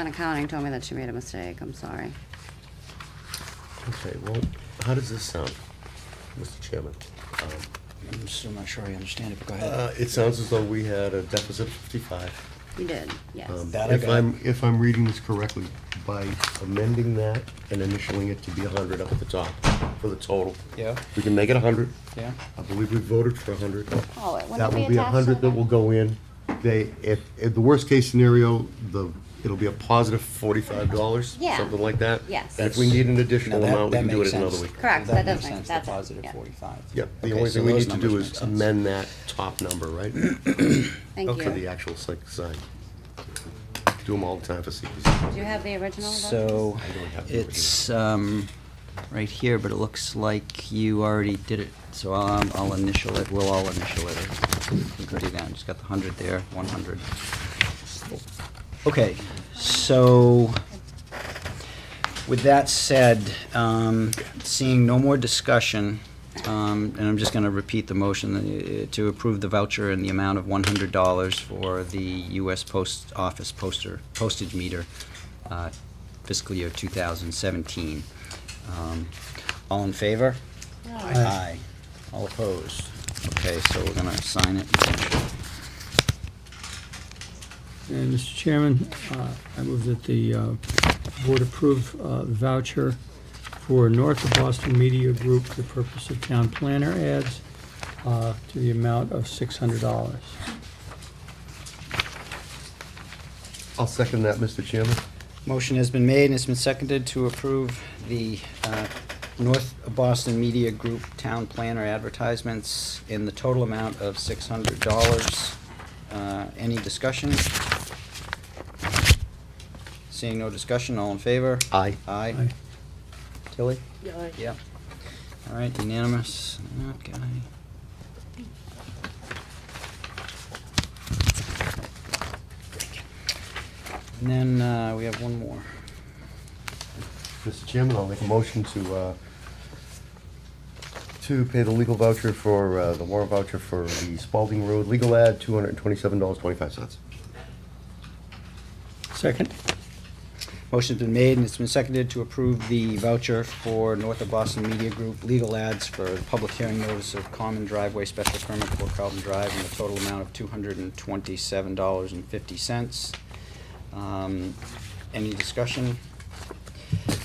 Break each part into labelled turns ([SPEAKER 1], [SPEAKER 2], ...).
[SPEAKER 1] in accounting told me that she made a mistake, I'm sorry.
[SPEAKER 2] Okay, well, how does this sound, Mr. Chairman? Um,
[SPEAKER 3] I'm still not sure I understand it, but go ahead.
[SPEAKER 2] uh, It sounds as though we had a deficit of 55.
[SPEAKER 1] You did, yes.
[SPEAKER 2] Um,
[SPEAKER 3] That I
[SPEAKER 2] If
[SPEAKER 3] got.
[SPEAKER 2] I'm, if I'm reading this correctly, by amending that and initialing it to be 100 up at the top for the total.
[SPEAKER 3] Yeah.
[SPEAKER 2] We can make it 100.
[SPEAKER 3] Yeah?
[SPEAKER 2] I believe we voted for 100.
[SPEAKER 1] Oh, it
[SPEAKER 2] That
[SPEAKER 1] wouldn't
[SPEAKER 2] will
[SPEAKER 1] be
[SPEAKER 2] be a
[SPEAKER 1] attached to
[SPEAKER 2] 100 that will go in. They, if, if the worst-case scenario, the, it'll be a positive $45,
[SPEAKER 1] Yeah.
[SPEAKER 2] something like that.
[SPEAKER 1] Yes.
[SPEAKER 2] And if we need an additional
[SPEAKER 3] Now that-
[SPEAKER 2] amount, we
[SPEAKER 3] that
[SPEAKER 2] can do
[SPEAKER 3] makes
[SPEAKER 2] it another
[SPEAKER 3] sense.
[SPEAKER 2] week.
[SPEAKER 1] Correct, that does
[SPEAKER 3] makes
[SPEAKER 1] make-
[SPEAKER 3] sense, the
[SPEAKER 1] that's-
[SPEAKER 3] positive
[SPEAKER 1] yeah.
[SPEAKER 3] forty-five.
[SPEAKER 2] Yeah, the
[SPEAKER 3] Okay,
[SPEAKER 2] only
[SPEAKER 3] so
[SPEAKER 2] thing we
[SPEAKER 3] those
[SPEAKER 2] need to
[SPEAKER 3] numbers
[SPEAKER 2] do
[SPEAKER 3] make
[SPEAKER 2] is
[SPEAKER 3] sense.
[SPEAKER 2] amend that top number, right?
[SPEAKER 1] Thank
[SPEAKER 2] For the
[SPEAKER 1] you.
[SPEAKER 2] actual site design. Do them all the time for secrets.
[SPEAKER 1] Do you have the original? of those?
[SPEAKER 3] So,
[SPEAKER 2] I don't have the
[SPEAKER 3] it's, um, right here, but it looks like you already did it, so I'll, I'll initial it, we'll all initial it. We can do that, just got the hundred there, one hundred. Okay, so, with that said, um, seeing no more discussion, um, and I'm just gonna repeat the motion, uh, to approve the voucher in the amount of one hundred dollars for the US Post Office poster, postage meter, uh, fiscal year two thousand seventeen. Um, All in favor? Aye. All opposed? Okay, so we're gonna sign it.
[SPEAKER 4] And Mr. Chairman, uh, I move that the uh, board approve uh, voucher for North of Boston Media Group, for the purpose of town planner ads, uh, to the amount of $600.
[SPEAKER 2] I'll second that, Mr. Chairman.
[SPEAKER 3] Motion has been made and it's been seconded to approve the uh, North Boston Media Group Town Planner advertisements in the total amount of six hundred dollars. Uh, Any discussion? Seeing no discussion, all in favor?
[SPEAKER 2] Aye.
[SPEAKER 3] Aye.
[SPEAKER 4] Aye.
[SPEAKER 3] Tilly? Yep. All right, unanimous. Okay. And then uh, we have one more.
[SPEAKER 2] Mr. Chairman, I'll make a motion to, uh, to pay the legal voucher for, uh, the warrant voucher for the Spalding Road legal ad, $227.25.
[SPEAKER 4] Second?
[SPEAKER 3] Motion's been made and it's been seconded to approve the voucher for North of Boston Media Group legal ads for the public hearing notice of common driveway special permit for Carlton Drive in the total amount of two hundred and twenty-seven dollars and fifty cents. Um, Any discussion?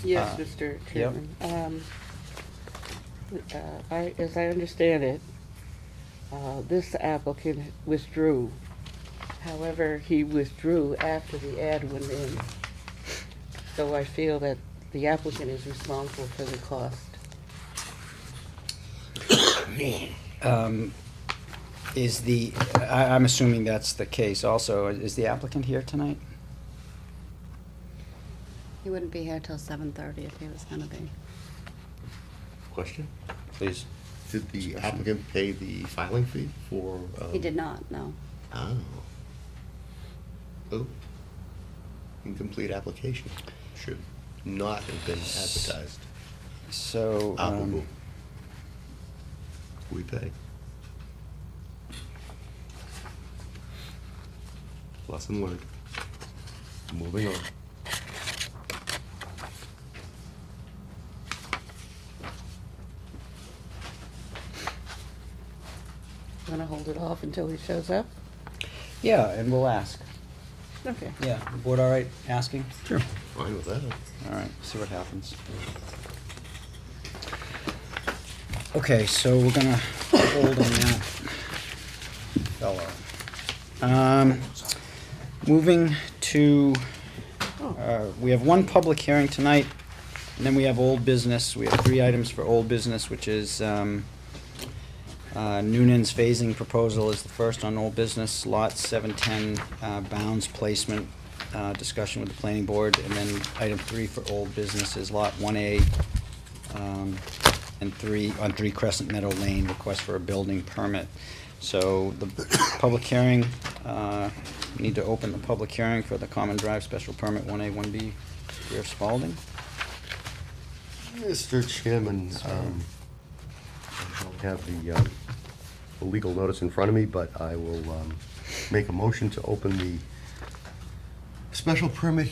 [SPEAKER 5] Yes,
[SPEAKER 3] Uh,
[SPEAKER 5] Mr. Chairman. Um, uh, I, as I understand it, uh, this applicant withdrew. However, he withdrew after the ad went in. So I feel that the applicant is responsible for the cost.
[SPEAKER 3] Um, Is the, I, I'm assuming that's the case also. Is the applicant here tonight?
[SPEAKER 1] He wouldn't be here till 7:30 if he was gonna be.
[SPEAKER 2] Question?
[SPEAKER 3] Please.
[SPEAKER 2] Did the applicant pay the filing fee for? um,
[SPEAKER 1] He did not, no.
[SPEAKER 2] Oh. Oh. Incomplete application. Should not have been advertised.
[SPEAKER 3] So,
[SPEAKER 2] Applicable.
[SPEAKER 3] um,
[SPEAKER 2] We pay. Lesson learned. Moving on.
[SPEAKER 5] Want to hold it off until he shows up?
[SPEAKER 3] yeah, and we'll ask.
[SPEAKER 5] Okay.
[SPEAKER 3] Yeah, the board all right asking?
[SPEAKER 4] Sure.
[SPEAKER 2] Fine with that.
[SPEAKER 3] All right, see what happens. Okay, so we're gonna hold on that fellow. Um, moving to, uh, we have one public hearing tonight, and then we have old business. We have three items for old business, which is, um, uh, Noonan's phasing proposal is the first on old business, lot seven-ten, uh, bounds placement, uh, discussion with the planning board, and then item three for old business is lot one A, um, and three, on Three Crescent Meadow Lane, request for a building permit. So the public hearing, uh, we need to open the public hearing for the common drive special permit one A, one B, Rear Spalding.
[SPEAKER 2] Mr. Chairman, um, I don't have the, um, the legal notice in front of me, but I will, um, make a motion to open the special permit